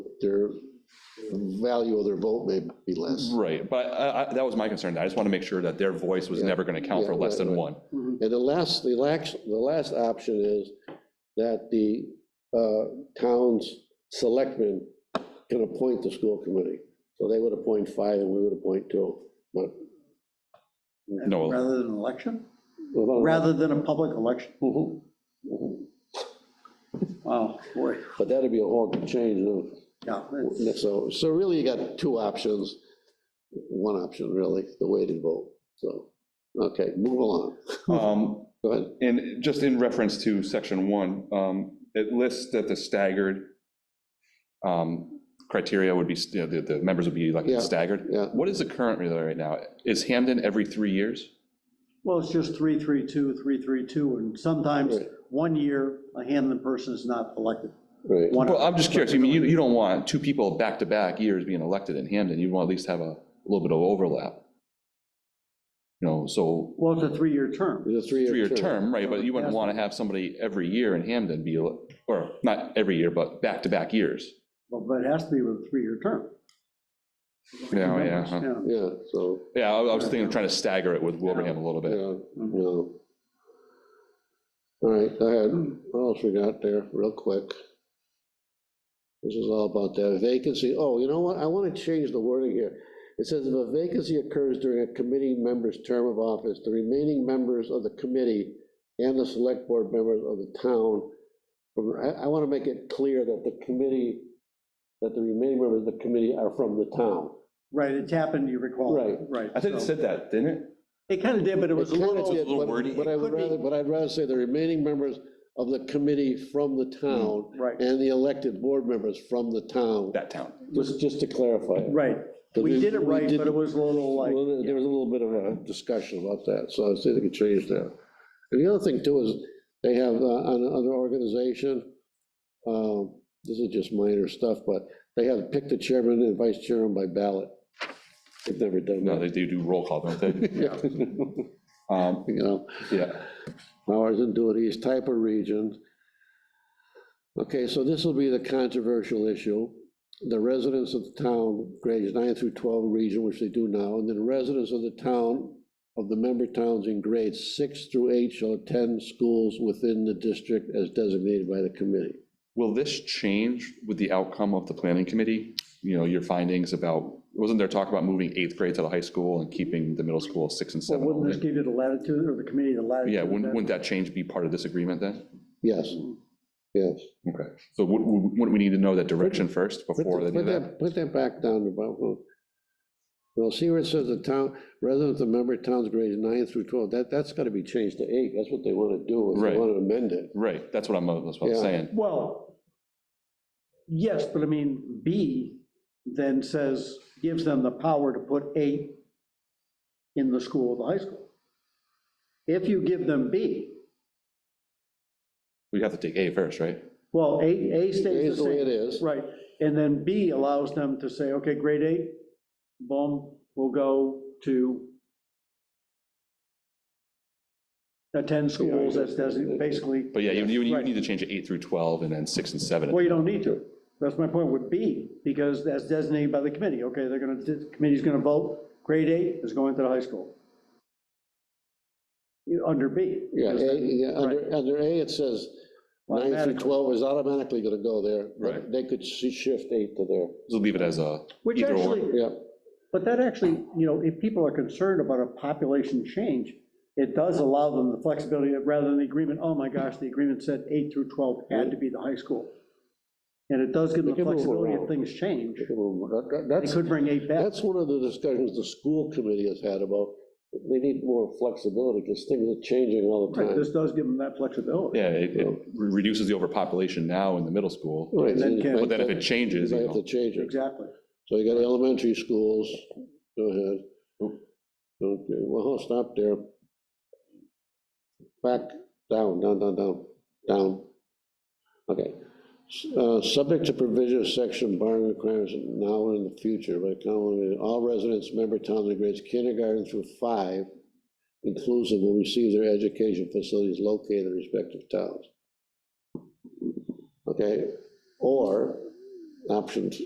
their value of their vote may be less. Right, but I, I, that was my concern. I just want to make sure that their voice was never going to count for yeah, less right, than right. one. And the last, the last, the last option is that the uh, town's selectmen can appoint the school committee. So they would appoint five and we would appoint two, but. No. Rather than an election? Rather than a public election? Mm-hmm. Mhm. Wow, boy, But that'd be a whole change of. yeah. Yeah, So, so really you got two options, one option really, the weighted vote, so, okay, move along, Um, go ahead. And just in reference to section one, um, it lists that the staggered um, criteria would be, you know, the, the members would be Yeah, elected staggered. yeah. What is the current rate right now? Is Hamden every three years? Well, it's just three, three, two, three, three, two, and sometimes Right. one year, a Hamlin person is not elected. Right, One- Well, I'm just curious. I mean, you, you don't want two people back-to-back years being elected in Hamden. You'd want at least have a little bit of overlap. You know, so Well, it's a three-year term. it's a three-year term, right, but you wouldn't Yeah. want to have somebody every year in Hamden be, ele- or not every year, but back-to-back years. Well, But it has to be with a three-year term. Yeah, yeah, uh-huh. Yeah, so, Yeah, I I was thinking of trying to stagger it with Wilbraham a little yeah, bit. Mm-hmm. no. All right, go ahead, what else we got there, real quick? This is all about that vacancy, oh, you know what, I want to change the wording here. It says if a vacancy occurs during a committee member's term of office, the remaining members of the committee and the select board members of the town, I, I want to make it clear that the committee, that the remaining members of the committee are from the town. Right, it's happened, you recall. Right. Right. I think it so- said that, didn't it? It kind of did, but it was a It kinda little, did, little but- wordy. But I It would could be. rather, but I'd rather say the remaining members of the committee from the Hmm. town right. and the elected board members from the town, That town. just, just to clarify. it. right. But We we- did it we right, but it didn't- was a little like. Well, there there was a little bit of a discussion about that, so I was thinking they could change that. And the other thing too is, they have uh, on another organization, um, this is just minor stuff, but they have picked the chairman and vice chairman by ballot. They've never done No, that. they they do roll call, don't they? Um, You know? Yeah, Powers and duties, type of region. Okay, so this will be the controversial issue. The residents of the town, grades nine through 12 region, which they do now, and then residents of the town, of the member towns in grades six through eight shall attend schools within the district as designated by the committee. will this change with the outcome of the planning committee? You know, your findings about, wasn't there talk about moving eighth grade to the high school and keeping the middle school six and Well, seven? Wouldn't this only? give you the latitude, or the committee the latitude? Yeah, wouldn't, that- wouldn't that change be part of this agreement then? Yes, yes. Okay, so would, would wouldn't we need to know that direction first Put before the- any put of that? that, put that back down to about, well, well, see where it says the town, residents of member towns grades nine through 12, that, that's got to be changed to eight, that's what they want to do, if Right. they want to amend it. Right, that's what I'm, that's what I'm Yeah. saying. Well, yes, but I mean, B then says, gives them the power to put eight in the school, the high school. If you give them B, We have to take A first, right? well, A, A stays the same. It is the way it is. Right, and then B allows them to say, okay, grade eight, boom, we'll go to attend schools, that's desi- basically. But yeah, you, you you Right. need to change it eight through 12 and then six and seven. Well, you don't need to. That's my point with B, because that's designated by the committee. Okay, they're gonna, the committee's gonna vote, grade eight is going to the high school. You- Under B. Yeah, because A- that- yeah, under, under A, it says nine through Automatically. 12 is automatically going to go there. but Right. They could sh- shift eight to there, Just leave it as a Which either or. actually, yeah. but that actually, you know, if people are concerned about a population change, it does allow them the flexibility, of- rather than the agreement, oh my gosh, the agreement said eight through 12 had to be the high school. And it does give them They the can move flexibility if around. things change. That- that- They That's, could bring eight back. that's one of the discussions the school committee has had about, they need more flexibility because things are changing all the Right, time. This does give them that flexibility. Yeah, it it re- reduces the overpopulation now in the middle school, Right, And then you can- but might- then if it You changes, might you have to know. change it. Exactly. So you got elementary schools, go ahead. Oop. Okay, well, I'll stop there. Back, down, down, down, down, down. Okay. S- uh, Subject to provision of section barring requirements now and in the future, by common, all residents, member towns and grades kindergarten through five inclusive will receive their education facilities located in respective towns. Okay, or options.